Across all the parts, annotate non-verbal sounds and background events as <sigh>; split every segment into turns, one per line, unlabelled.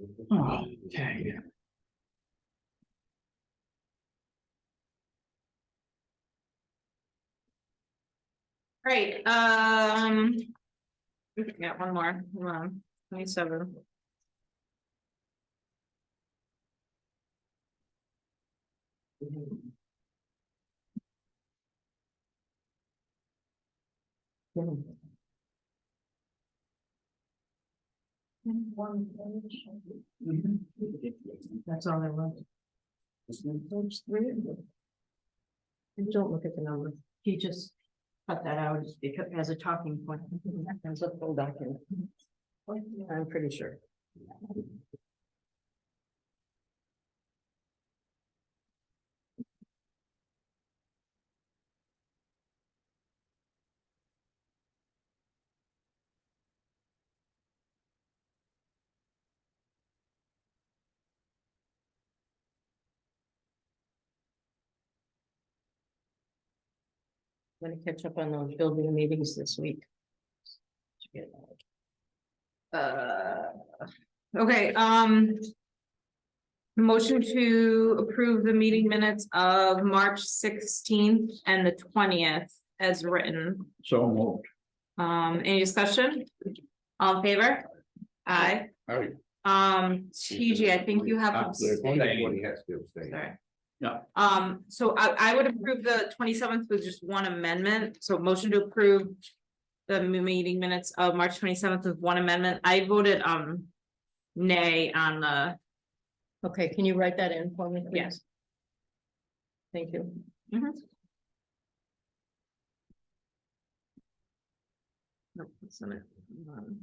Okay.
Right, um. we Got one more, hold on, twenty-seven.
That's all I want.
And don't look at the number. He just cut that out as because as a talking point. As a full document. I'm pretty sure. I'm Gonna catch up on those building meetings this week.
Uh, okay, um. Motion to approve the meeting minutes of March sixteenth and the twentieth as written.
So moved.
Um, any discussion? All in favor? Aye.
All right. Ah,
Um, TJ, I think you have. abstained. Sorry.
Yeah.
Um, so I, I would approve the twenty-seventh with just one amendment, so motion to approve. The meeting minutes of March twenty-seventh with one amendment, I voted, um. Nay on the,
Okay, can you write that in for me? please?
Yes.
Thank you.
no, that's not it. Um,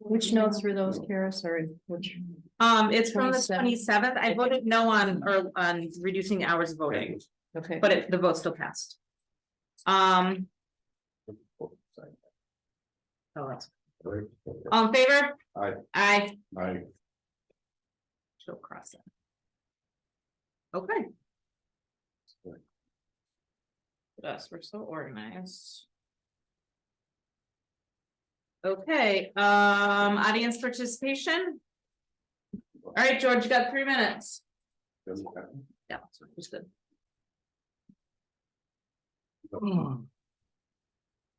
Which notes were those, Kara? Sorry, which?
Um, it's from the
27th.
twenty-seventh, I voted no on, or on reducing the hours of voting,
Okay.
but it, the vote still passed. Um,
Oh, that's-
all in favor?
Aye.
Aye.
I,
She'll cross it. Okay.
Right.
Yes, we're so organized. Okay, um, audience participation. All right, George, you got three minutes. Yeah, that's what was good.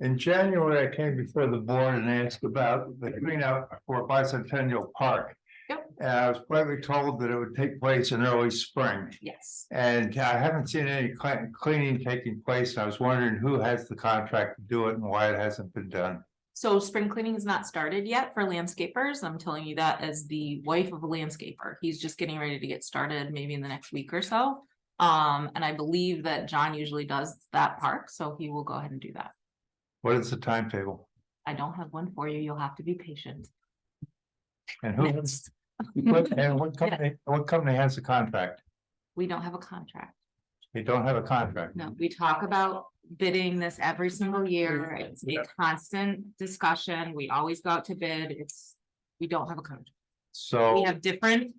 In January, I came before the board and asked about the cleanup for bicentennial park.
Yep.
And I was politely told that it would take place in early spring,
Yes,
and I haven't seen any clean- cleaning taking place, and I was wondering who has the contract to do it and why it hasn't been done.
so spring cleaning is not started yet for landscapers. I'm telling you that as the wife of a landscaper. He's just getting ready to get started maybe in the next week or so. Um, and I believe that John usually does that park, so he will go ahead and do that.
What is the timetable?
I don't have one for you. You'll have to be patient.
And who,
Next,
what- and what company, what company has the contract?
we don't have a contract.
They don't have a contract.
No, we talk about bidding this every single year. It's a constant discussion. We always go out to bid. It's, we don't have a contract. We
So,
have different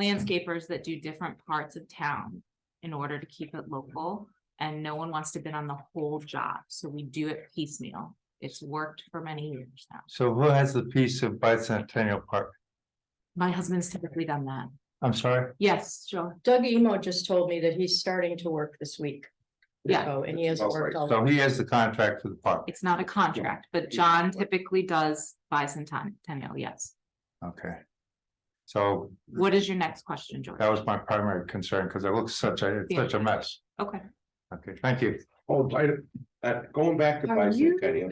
landscapers that do different parts of town in order to keep it local. And no one wants to bid on the whole job, so we do it piecemeal. It's worked for many years now.
so who has the piece of bicentennial park?
My husband's typically done that.
I'm sorry,
Yes, sure.
Doug Emo just told me that he's starting to work this week.
Yeah.
Oh, and he hasn't worked all.
so he has the contract for the park,
It's not a contract, but John typically does bicentennial, yes.
okay? So
What is your next question, George?
That was my primary concern, because it looks such a, it's such a mess.
Okay.
Okay, thank you.
oh, I, uh, going back to
Are you-
bicentennial.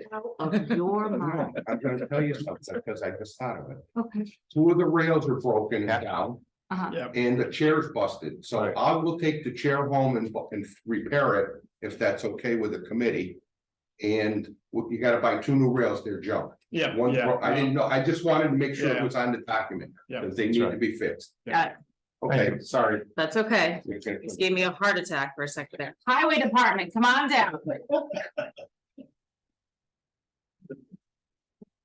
<laughs>
Of your mind.
I'm gonna tell you something, because I just thought of it.
Okay.
Two of the rails are broken
Yeah.
down
Uh-huh.
and the chair's busted, so
Right.
I will take the chair home and, bu- and repair it if that's okay with the committee. And w- you gotta buy two new rails, they're junk.
Yeah,
One,
yeah.
bro- I didn't know, I just wanted to make sure it
Yeah.
was on the document,
Yeah.
because they need to be fixed.
Got it.
Okay, sorry.
That's okay.
Okay.
Just gave me a heart attack for a second there. Highway Department, come on down.